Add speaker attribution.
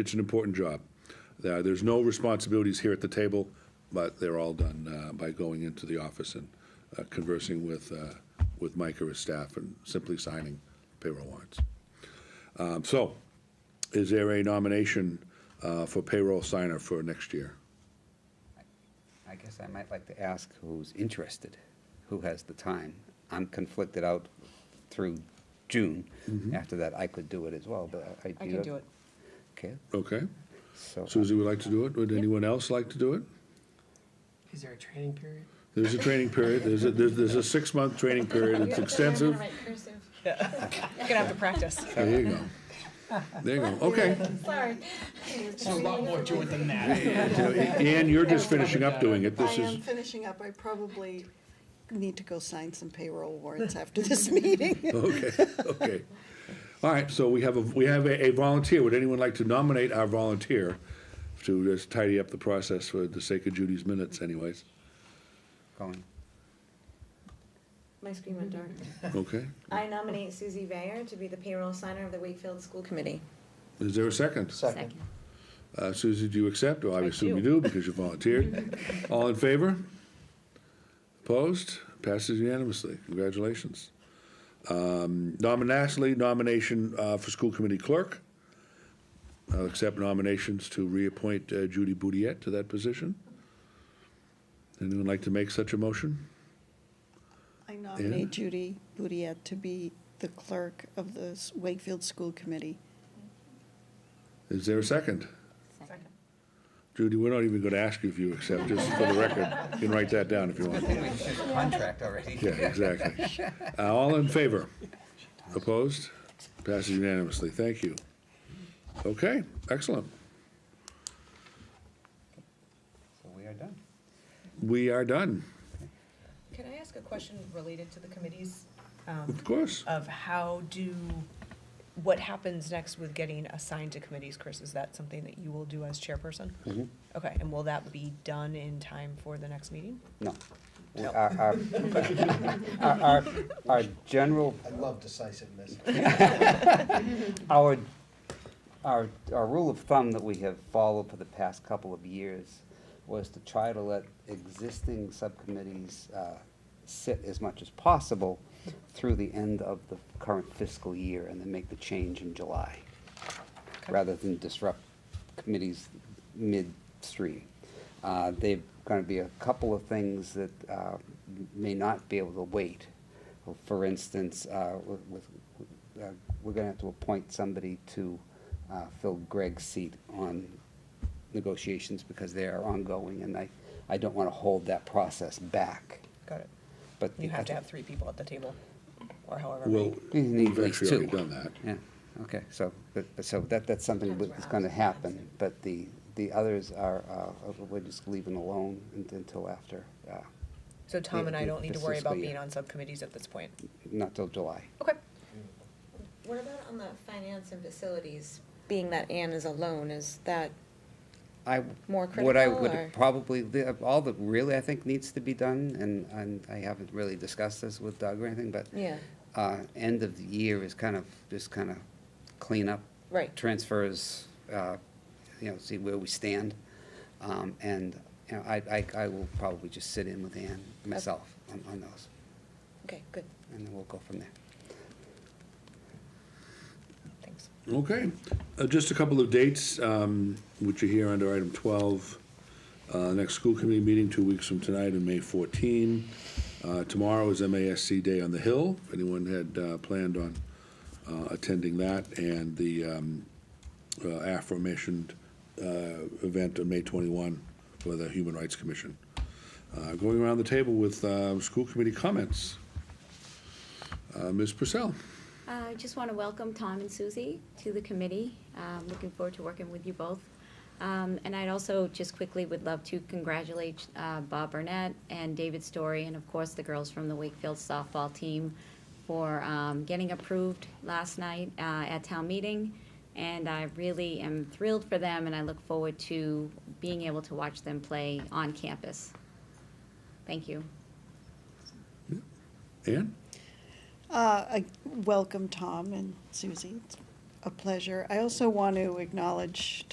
Speaker 1: It's an important job. There- There's no responsibilities here at the table, but they're all done uh, by going into the office and uh, conversing with, uh, with Mike or his staff and simply signing payroll warrants. Um, So, is there a nomination uh, for payroll signer for next year?
Speaker 2: I guess I might like to ask who's interested, who has the time. I'm conflicted out through June. After that, I could do it as well, but I.
Speaker 3: I can do it.
Speaker 2: Okay,
Speaker 1: Okay,
Speaker 2: so
Speaker 1: Susie would like to do it, would anyone else like to do it?
Speaker 4: Is there a training period?
Speaker 1: There's a training period, there's a, there's there's a six-month training period, it's extensive.
Speaker 3: You're gonna have to practice.
Speaker 1: There you go. There you go, okay.
Speaker 5: Sorry.
Speaker 4: a lot more to it than that.
Speaker 1: Ann, you're just finishing up doing it,
Speaker 6: I
Speaker 1: this is,
Speaker 6: am finishing up. I probably need to go sign some payroll warrants after this meeting.
Speaker 1: okay, okay. All right, so we have a, we have a a volunteer, would anyone like to nominate our volunteer to just tidy up the process for the sake of Judy's minutes anyways?
Speaker 2: Colin,
Speaker 5: My screen went dark.
Speaker 1: Okay,
Speaker 5: I nominate Susie Vayer to be the payroll signer of the Wakefield School Committee.
Speaker 1: is there a second?
Speaker 5: Second.
Speaker 1: Uh, Susie, do you accept? Well, I assume you do because you volunteered. All in favor? Opposed? Passes unanimously. Congratulations. Um, nomin- Lastly, nomination uh, for school committee clerk. I'll accept nominations to reappoint uh, Judy Boudiette to that position. Anyone like to make such a motion?
Speaker 6: I nominate Judy Boudiette to be the clerk of the S- Wakefield School Committee.
Speaker 1: Is there a second? Judy, we're not even going to ask you if you accept, just for the record. You can write that down if you want.
Speaker 2: we should contract already.
Speaker 1: Yeah, exactly. Uh, All in favor? Opposed? Passes unanimously. Thank you. Okay, excellent.
Speaker 2: So we are done.
Speaker 1: We are done,
Speaker 3: Can I ask a question related to the committees? um,
Speaker 1: of course.
Speaker 3: Of how do, what happens next with getting assigned to committees, Chris? Is that something that you will do as chairperson? Okay, and will that be done in time for the next meeting?
Speaker 2: No. Our, our, our- our, our general
Speaker 7: I love decisiveness.
Speaker 2: Our, our, our rule of thumb that we have followed for the past couple of years was to try to let existing subcommittees uh, sit as much as possible through the end of the current fiscal year and then make the change in July, rather than disrupt committees midstream. Uh, There're going to be a couple of things that uh, may not be able to wait. For instance, uh, with, with- uh, we're going to have to appoint somebody to uh, fill Greg's seat on negotiations because they are ongoing, and I, I don't want to hold that process back.
Speaker 3: Got it.
Speaker 2: But
Speaker 3: You
Speaker 2: the
Speaker 3: have to
Speaker 2: other-
Speaker 3: have three people at the table, or however.
Speaker 1: Well,
Speaker 3: many.
Speaker 2: You need
Speaker 1: we've
Speaker 2: at least
Speaker 1: actually already
Speaker 2: two.
Speaker 1: done that.
Speaker 2: Yeah, okay, so, but, but so that, that's something that's gonna happen, but the, the others are, uh, we're just leaving alone un- until after, uh,
Speaker 3: So Tom and I don't need to worry about
Speaker 2: Fiscal year.
Speaker 3: being on subcommittees at this point.
Speaker 2: not till July.
Speaker 3: Okay.
Speaker 5: What about on the finance and facilities, being that Anne is alone, is that,
Speaker 2: I,
Speaker 5: More
Speaker 2: what I
Speaker 5: critical, or-
Speaker 2: would probably, the- all that really I think needs to be done, and, and I haven't really discussed this with Doug or anything, but
Speaker 5: yeah,
Speaker 2: uh, end of the year is kind of, just kind of clean up.
Speaker 5: Right.
Speaker 2: Transfers, uh, you know, see where we stand. Um, And, you know, I, I, I will probably just sit in with Ann myself on, on those,
Speaker 5: okay, good.
Speaker 2: and then we'll go from there.
Speaker 3: Thanks.
Speaker 1: Okay, Uh, just a couple of dates, um, which are here under item 12. Uh, Next school committee meeting, two weeks from tonight, on May 14. Uh, Tomorrow is MASC Day on the Hill, if anyone had uh, planned on uh, attending that, and the um, uh, aforementioned uh, event on May 21 for the Human Rights Commission. Uh, Going around the table with uh, school committee comments. Uh, Ms. Purcell?
Speaker 8: Uh, I just want to welcome Tom and Susie to the committee. Um, Looking forward to working with you both. Um, And I'd also just quickly would love to congratulate uh, Bob Burnett and David Story, and of course, the girls from the Wakefield softball team for um, getting approved last night uh, at town meeting. And I really am thrilled for them, and I look forward to being able to watch them play on campus. Thank you.
Speaker 1: Ann?
Speaker 6: Uh, I Welcome, Tom and Susie. It's a pleasure. I also want to acknowledge